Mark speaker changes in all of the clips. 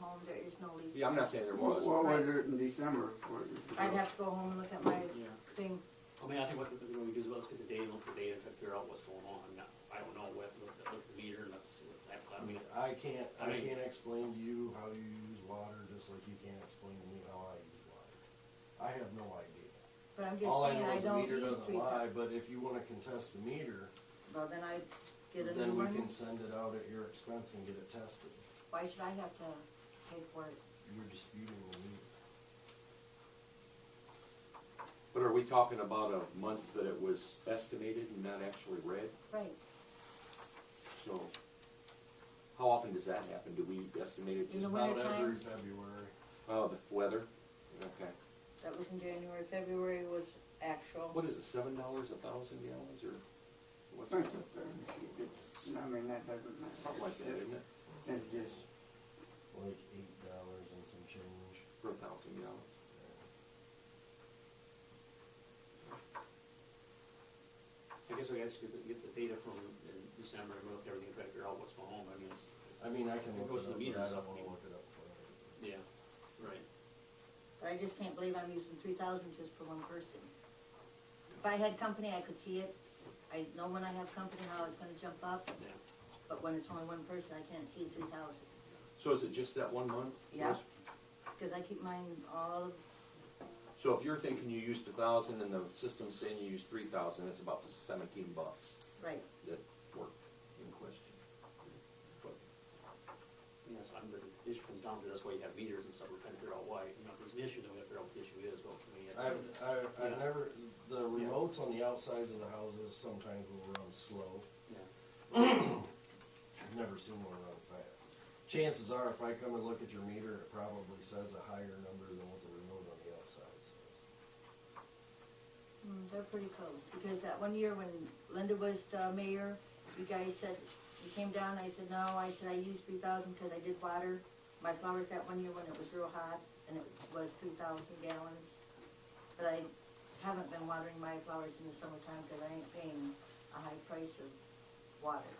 Speaker 1: home, there is no leak.
Speaker 2: Yeah, I'm not saying there was.
Speaker 3: What was it in December?
Speaker 1: I'd have to go home and look at my
Speaker 2: Yeah.
Speaker 1: thing.
Speaker 4: I mean, I think what, what we do is let's get the data, look at the data, and try to figure out what's going on. Now, I don't know, we have to look at, look at the meter and let's, that, I mean,
Speaker 5: I can't,
Speaker 4: I
Speaker 5: I
Speaker 4: mean-
Speaker 5: can't explain to you how you use water, just like you can't explain to me how I use water. I have no idea.
Speaker 1: But I'm just
Speaker 5: All I
Speaker 1: saying,
Speaker 5: know
Speaker 1: I
Speaker 5: is the
Speaker 1: don't
Speaker 5: meter
Speaker 1: use
Speaker 5: doesn't
Speaker 1: three.
Speaker 5: lie, but if you wanna contest the meter,
Speaker 1: Well, then I get a new
Speaker 5: then we
Speaker 1: one.
Speaker 5: can send it out at your expense and get it tested.
Speaker 1: Why should I have to pay for it?
Speaker 5: You're disputing the meter.
Speaker 2: But are we talking about a month that it was estimated and not actually read?
Speaker 1: Right,
Speaker 2: So, how often does that happen? Do we estimate it
Speaker 1: In
Speaker 2: just,
Speaker 1: the
Speaker 5: Just
Speaker 1: winter
Speaker 5: about every
Speaker 1: time?
Speaker 5: February.
Speaker 2: oh, the weather? Okay.
Speaker 1: that was in January, February was actual.
Speaker 2: What is it, seven dollars a thousand gallons or what's it?
Speaker 3: It's, I mean, that doesn't matter.
Speaker 2: Something like that, isn't it?
Speaker 3: It's just,
Speaker 5: like eight dollars and some change.
Speaker 2: For a thousand gallons.
Speaker 4: I guess we guys get, the- get the data from in December and look at everything, try to figure out what's going on, I mean, it's, it's-
Speaker 5: I mean, I can
Speaker 4: It
Speaker 5: look
Speaker 4: goes to
Speaker 5: it up,
Speaker 4: the
Speaker 5: but I
Speaker 4: meters
Speaker 5: don't
Speaker 4: up
Speaker 5: wanna
Speaker 4: anymore.
Speaker 5: look it up for it.
Speaker 4: yeah, right.
Speaker 1: But I just can't believe I'm using three thousand just for one person. If I had company, I could see it. I know when I have company how it's gonna jump up,
Speaker 4: Yeah.
Speaker 1: but when it's only one person, I can't see three thousand.
Speaker 2: So is it just that one month?
Speaker 1: Yeah, because I keep mine all of
Speaker 2: So if you're thinking you used a thousand and the system's saying you used three thousand, it's about seventeen bucks
Speaker 1: right.
Speaker 2: that were in question. But
Speaker 4: Yes, I'm, the issue comes down to, that's why you have meters and stuff, we're trying to figure out why, you know, if there's an issue, then we have to figure out what the issue is, what can we?
Speaker 5: I, I, I
Speaker 4: Yeah.
Speaker 5: never, the remotes on the outsides of the houses sometimes will run slow.
Speaker 4: Yeah.
Speaker 5: I've never seen one run fast. Chances are, if I come and look at your meter, it probably says a higher number than what the remote on the outside says.
Speaker 1: Mm, They're pretty close, because that one year when Linda was uh, mayor, you guys said, you came down, I said, no, I said, I used three thousand because I did water my flowers that one year when it was real hot, and it was three thousand gallons. But I haven't been watering my flowers in the summertime because I ain't paying a high price of water.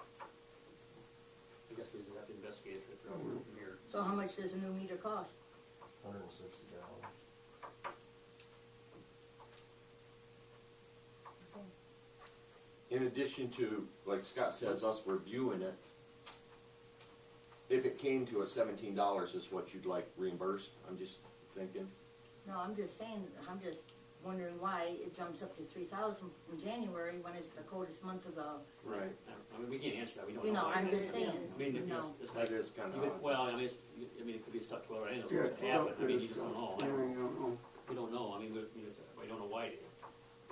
Speaker 4: I guess we just have to investigate, try to figure out where from here.
Speaker 1: Mm-hmm. So how much does a new meter cost?
Speaker 5: Hundred and sixty dollars.
Speaker 2: in addition to, like Scott says, us reviewing it, if it came to a seventeen dollars is what you'd like reimbursed, I'm just thinking.
Speaker 1: No, I'm just saying, I'm just wondering why it jumps up to three thousand in January when it's the coldest month of the,
Speaker 2: Right.
Speaker 4: I don't- I mean, we can't answer that, we don't know.
Speaker 1: you know,
Speaker 4: why.
Speaker 1: I'm just saying,
Speaker 4: I mean,
Speaker 1: you
Speaker 4: it's,
Speaker 1: know.
Speaker 4: it's like,
Speaker 2: That is kind
Speaker 4: even-
Speaker 2: of odd.
Speaker 4: well, I mean, it's, I mean, it could be stuck to our end,
Speaker 3: yeah.
Speaker 4: it could happen, I mean, you just don't know. I
Speaker 3: Yeah,
Speaker 4: don't-
Speaker 3: you don't know.
Speaker 4: We don't know, I mean, we, we we don't know why it,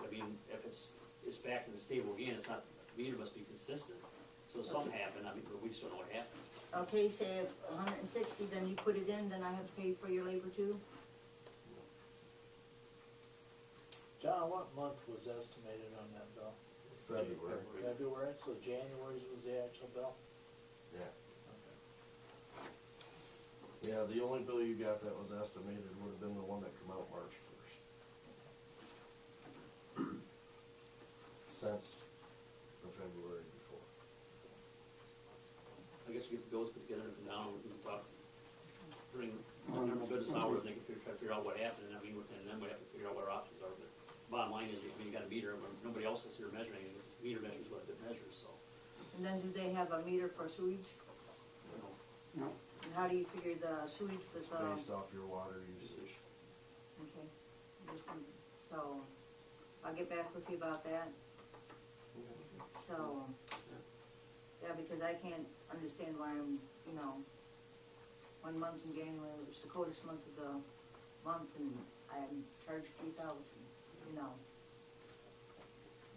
Speaker 4: I mean, if it's, it's back in the stable again, it's not, the meter must be consistent. So something happened, I mean, but we just don't know what happened.
Speaker 1: Okay, say if a hundred and sixty, then you put it in, then I have to pay for your labor too?
Speaker 6: John, what month was estimated on that bill?
Speaker 5: February,
Speaker 6: February, so January's was the actual bill?
Speaker 5: yeah. Yeah, the only bill you got that was estimated would have been the one that come out March first. Since the February before.
Speaker 4: I guess we get the bills put together and now we can talk during the normal business hours, and they can figure, try to figure out what happened, and I mean, and then we have to figure out what our options are, but bottom line is, I mean, you got a meter, but nobody else is here measuring, it. This meter measures what it measures, so,
Speaker 1: And then do they have a meter for sewage?
Speaker 4: you know.
Speaker 3: No,
Speaker 1: And how do you figure the sewage with,
Speaker 5: It's
Speaker 1: uh,
Speaker 5: based off your water usage.
Speaker 1: okay, just one- so, I'll get back with you about that, so. Yeah, because I can't understand why I'm, you know, one month in January, it was the coldest month of the month, and I'm charged three thousand, you know.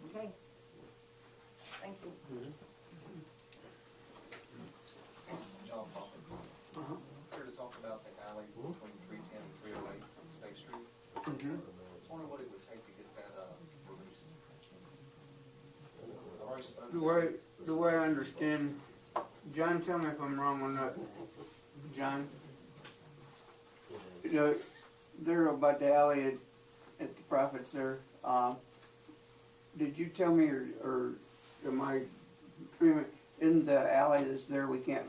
Speaker 1: Okay, thank you.
Speaker 7: John Popper.
Speaker 3: Uh-huh.
Speaker 7: Here to talk about the alley between three ten and three oh eight State Street.
Speaker 3: Mhm.
Speaker 7: I was wondering what it would take to get that, uh, released. I've already spoken to-
Speaker 3: The way, the way I understand, John, tell me if I'm wrong or not, John, the, there about the alley at, at the profits there, um, did you tell me or, or am I, isn't the alley that's there, we can't